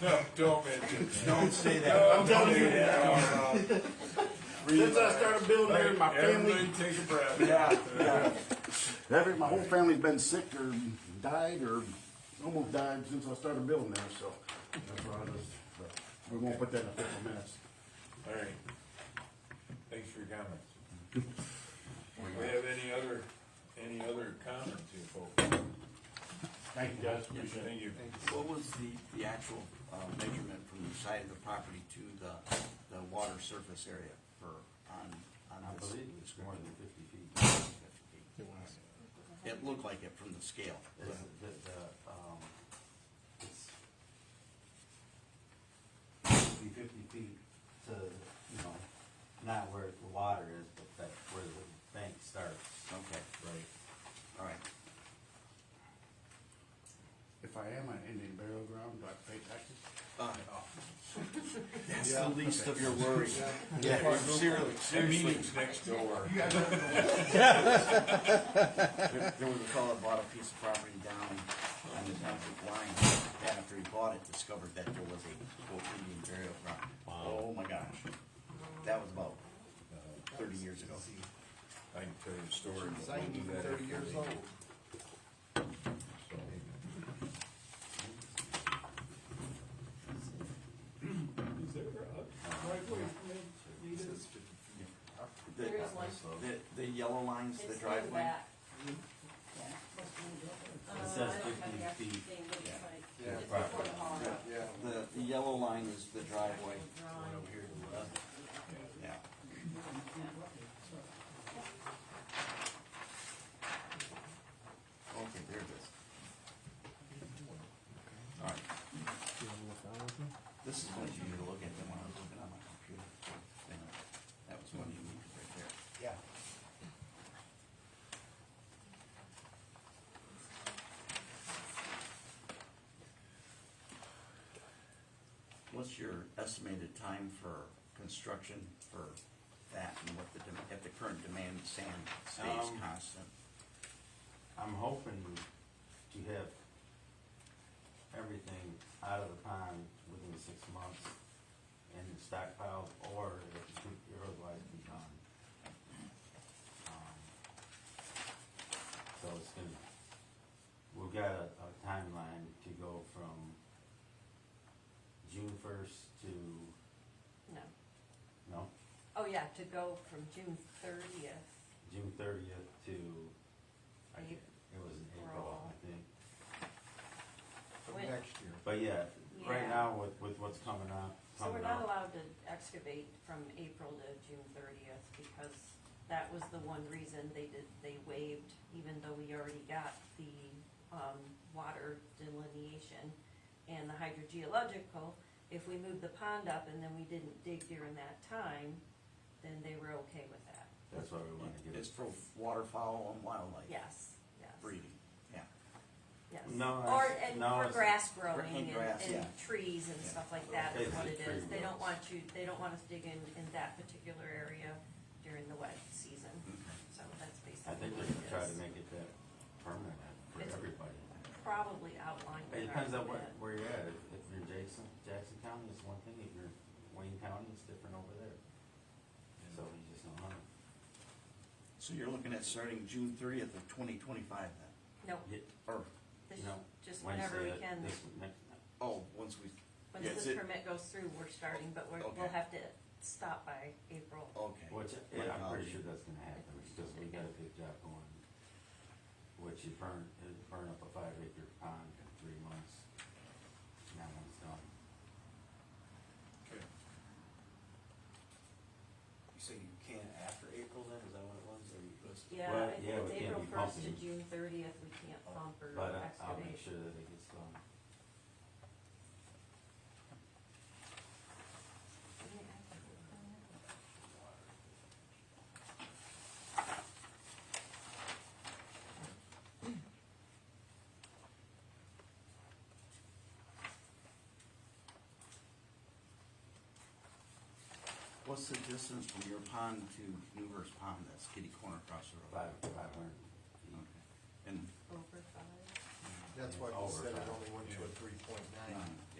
No, don't mention. Don't say No, that. I'm telling you. No, no. Since I started building here, my family, Everybody take a breath. Yeah, Every, my whole family's been sick or died or almost died since I started building there, so that's why I just, but we won't put that in official minutes. All right. Thanks for your comments. Do we have any other, any other comments here, folks? Thank you guys, appreciate it. Thank you. What was the, the actual, uh, measurement from the side of the property to the, the water surface area for, on, on I this? believe it was more than fifty feet. It looked like it from the scale. It's, the, the, um, it's be fifty feet to, you know, not where the water is, but that, where the bank starts. Okay, Right. all right. If I am an Indian burial ground, do I pay taxes? Uh, That's the least of your worries. Yeah, seriously, That seriously. meeting's next door. There there was a fellow that bought a piece of property down on the township line, and after he bought it, discovered that there was a quote Indian burial ground. Oh my gosh, that was about uh, thirty years ago. I can tell you the story. but we'll do that after the- The- There is one. The, the yellow lines, the It's in the driveway, back. Uh, It says I don't have 50 the actual feet. thing, but it's Yeah. like- Yeah. it's before the hall. the, the yellow line is the driveway. Drawing. Yeah, okay, there it is. All right. This is what you need to look at, then when I was looking on my computer. thing. That was one you needed right there. Yeah. What's your estimated time for construction for that and what the, dem- if the current demand sand stays Um, constant? I'm hoping to have everything out of the pond within six months and stockpiled, or it could otherwise be gone. Um, So it's gonna, we've got a, a timeline to go from June first to, No. no, Oh, yeah, to go from June thirtieth, June thirtieth to, I get, it was in April, I think. when, But yeah, right Yeah. now with, with what's coming up, so we're coming not up, allowed to excavate from April to June thirtieth because that was the one reason they did, they waived, even though we already got the, um, water delineation and the hydrogeological, if we moved the pond up and then we didn't dig during that time, then they were okay with that. that's why we wanna get It's it. for waterfowl and wildlife Yes, yes. breeding, yeah. Yes. No, Or, it's- and no, for it's- grass For growing hand and, grass, and yeah. trees and Yeah. stuff like that is what it Basically is. tree They don't rows. want you, they don't want us digging in that particular area during the wet season. So that's Mm-hmm. I basically think they're what it gonna try to is. make it that permanent for It's- everybody. Probably outlined. in It our depends on where, bid. where you're at, if, if you're Jackson, Jackson County is one thing, if you're Wayne County, it's different over there. So you just don't know. So you're looking at starting June thirtieth of twenty twenty-five then, Nope, Yeah, or, this, no, just whenever Wednesday, we uh, can, this, next, oh, once we, once yeah, is this it- permit goes through, we're starting, but we're, Okay. we'll have to stop by April. Oh, okay. Which, My yeah, I'm pretty apology. sure that's gonna happen, because we got a good job going. Which you burn, it burn up a five acre pond in three months. Now one's done. Okay. So you can after April then, is that what it was, or you was? Yeah, Well, I think yeah, we it's can't April be first to pumping. June thirtieth, we can't pump or But I- excavate. I'll make sure that it gets done. What's the distance from your pond to Newver's Pond, that's kitty corner across the road? Five, five hundred Okay. feet. And, Over five. That's why we set it only went to a three point um, nine. yeah,